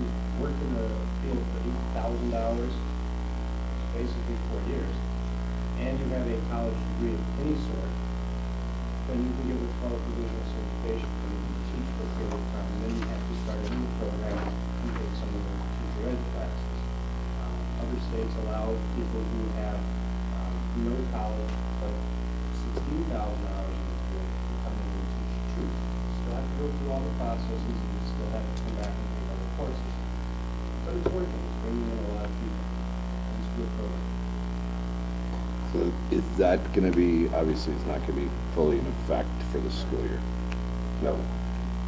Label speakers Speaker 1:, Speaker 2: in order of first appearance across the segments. Speaker 1: in the field for eight thousand dollars, basically four years, and you have a college degree of any sort, then you can give a qualification certification, and you can teach for a period of time, and then you have to start a new program and take some of the teacher ed classes. Um, Other states allow people who have um, no college, but sixteen thousand dollars in the field to come in and teach too. Still have to go through all the processes, and you still have to come back and take other courses. But it's working, it's bringing in a lot of people, and it's a good program.
Speaker 2: So is that gonna be, obviously, it's not gonna be fully in effect for the school year? No,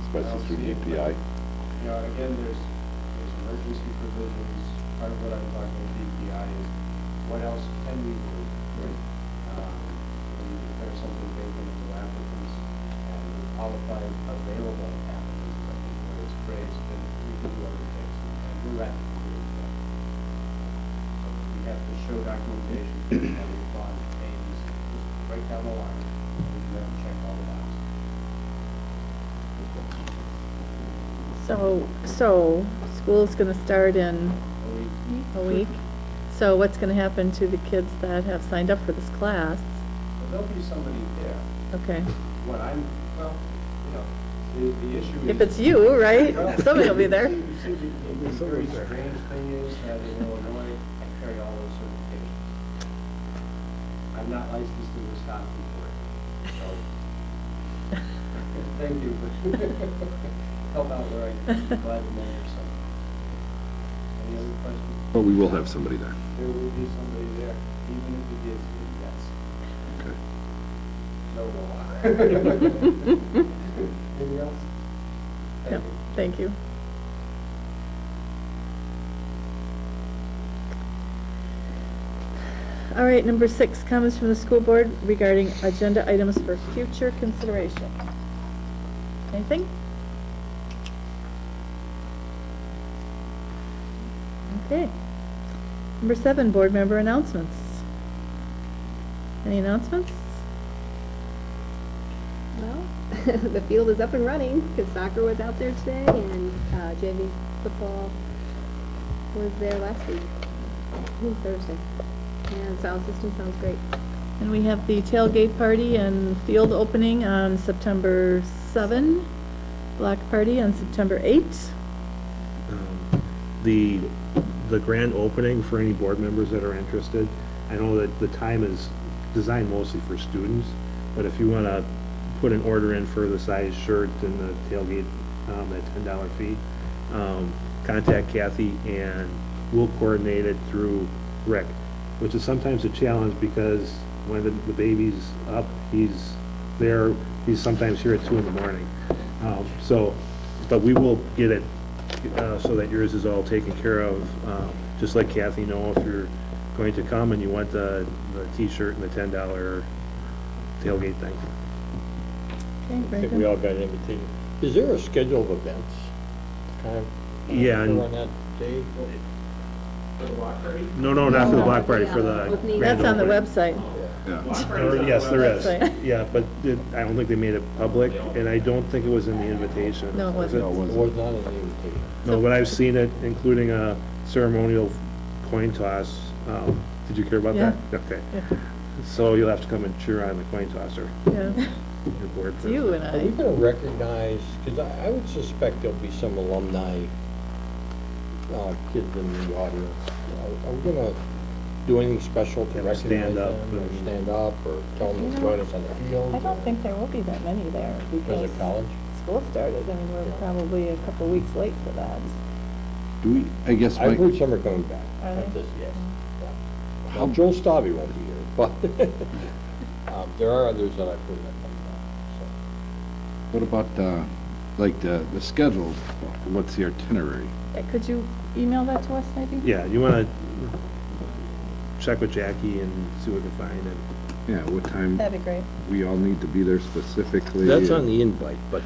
Speaker 2: especially through the API?
Speaker 1: You know, again, there's, there's emergency provisions, part of what I'm talking about DPI is, what else can we do? Um, When you declare something vacant to applicants, and we qualify available applicants, I think where it's phrased, then we can do other things, and we're rapidly doing that. So uh, we have to show documentation that we've gone pains, just right down the line, and we have to check all the boxes.
Speaker 3: So, so, school's gonna start in
Speaker 1: And we
Speaker 3: a week. So what's gonna happen to the kids that have signed up for this class?
Speaker 1: But there'll be somebody there.
Speaker 3: Okay,
Speaker 1: What I'm, well, you know, the, the issue is.
Speaker 3: if it's you, right?
Speaker 1: Well,
Speaker 3: Somebody will be there.
Speaker 1: it seems to be The very strange thing is that in Illinois, I carry all those certifications. I'm not licensed in Wisconsin for it, so. Thank you, but help out where I can, glad to measure some. Any other questions?
Speaker 2: But we will have somebody there.
Speaker 1: There will be somebody there, even if it is, yes, no
Speaker 2: Okay.
Speaker 1: law. Anything else?
Speaker 3: No,
Speaker 1: Thank you.
Speaker 3: thank you. All right, number six, comments from the school board regarding agenda items for future consideration. Anything? Okay. Number seven, board member announcements. Any announcements?
Speaker 4: Well, the field is up and running, because soccer was out there today, and uh, JV football was there last week, on Thursday. And sound system sounds great.
Speaker 3: And we have the tailgate party and field opening on September 7, block party on September 8.
Speaker 5: um, the, the grand opening for any board members that are interested. I know that the time is designed mostly for students, but if you want to put an order in for the size shirt and the tailgate, um, at ten dollar fee, um, contact Kathy and we'll coordinate it through Rick, which is sometimes a challenge because when the, the baby's up, he's there, he's sometimes here at two in the morning. Um, so, but we will get it uh, so that yours is all taken care of. Um, Just let Kathy know if you're going to come and you want the, the T-shirt and the ten dollar tailgate thing.
Speaker 3: Okay,
Speaker 6: I
Speaker 3: very
Speaker 6: think we
Speaker 3: good.
Speaker 6: all got an invitation. Is there a schedule of events? kind of, uh,
Speaker 5: Yeah, and-
Speaker 6: On that day?
Speaker 1: For the block party?
Speaker 5: No, no, not for the block party, for the.
Speaker 4: Opening.
Speaker 5: grand
Speaker 3: That's on the
Speaker 5: opening.
Speaker 3: website.
Speaker 2: Yeah.
Speaker 1: Block party's
Speaker 5: Or,
Speaker 1: on
Speaker 5: Yes,
Speaker 1: the
Speaker 5: there
Speaker 1: website.
Speaker 5: is.
Speaker 3: website.
Speaker 5: Yeah, but it- I don't think they made it public and I don't think it was in the invitation.
Speaker 3: No, it
Speaker 5: Was
Speaker 2: No, it
Speaker 6: It
Speaker 2: wasn't.
Speaker 6: was not an invitation.
Speaker 5: No, but I've seen it, including a ceremonial coin toss. Um, Did you hear about that? Okay.
Speaker 3: Yeah.
Speaker 5: So you'll have to come and cheer on the coin tosser,
Speaker 3: Yeah,
Speaker 5: your board.
Speaker 3: It's you and
Speaker 6: Are we
Speaker 3: I.
Speaker 6: gonna recognize, because I, I would suspect there'll be some alumni, uh, kids in the audience. Are are we gonna do anything special to
Speaker 5: Have them
Speaker 6: recognize them?
Speaker 5: stand up
Speaker 6: Or
Speaker 5: and-
Speaker 6: stand up, or tell them to join us on the field?
Speaker 3: I don't think there will be that many there
Speaker 6: As
Speaker 3: because
Speaker 6: a college?
Speaker 3: school started. I mean, we're probably a couple weeks late for that.
Speaker 2: Do we, I guess,
Speaker 6: I've
Speaker 2: Mike,
Speaker 6: heard some are coming back.
Speaker 3: Are
Speaker 6: Not
Speaker 3: they? Mm.
Speaker 6: this- Yes. yeah.
Speaker 2: How-
Speaker 6: Well, Joel Stavi won't be here, but, um, there are others that I've heard that come back,
Speaker 2: what about, uh, like, the, the schedule? What's the itinerary?
Speaker 3: Uh, Could you email that to us maybe?
Speaker 5: Yeah, you want to check with Jackie and see what we can find, and
Speaker 2: Yeah, what time
Speaker 3: That'd be great.
Speaker 2: we all need to be there
Speaker 6: so.
Speaker 2: specifically?
Speaker 6: That's on the invite, but.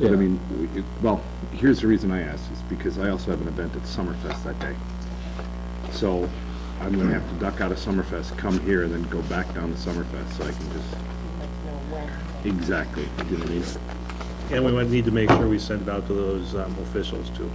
Speaker 2: But I mean, we- it- well, here's the reason I asked, is because I also have an event at Summerfest that day. So I'm gonna have to duck out of Summerfest, come here, and then go back down to Summerfest, so I can just. Exactly, you know what I mean?
Speaker 5: and we might need to make sure we send it out to those um, officials too.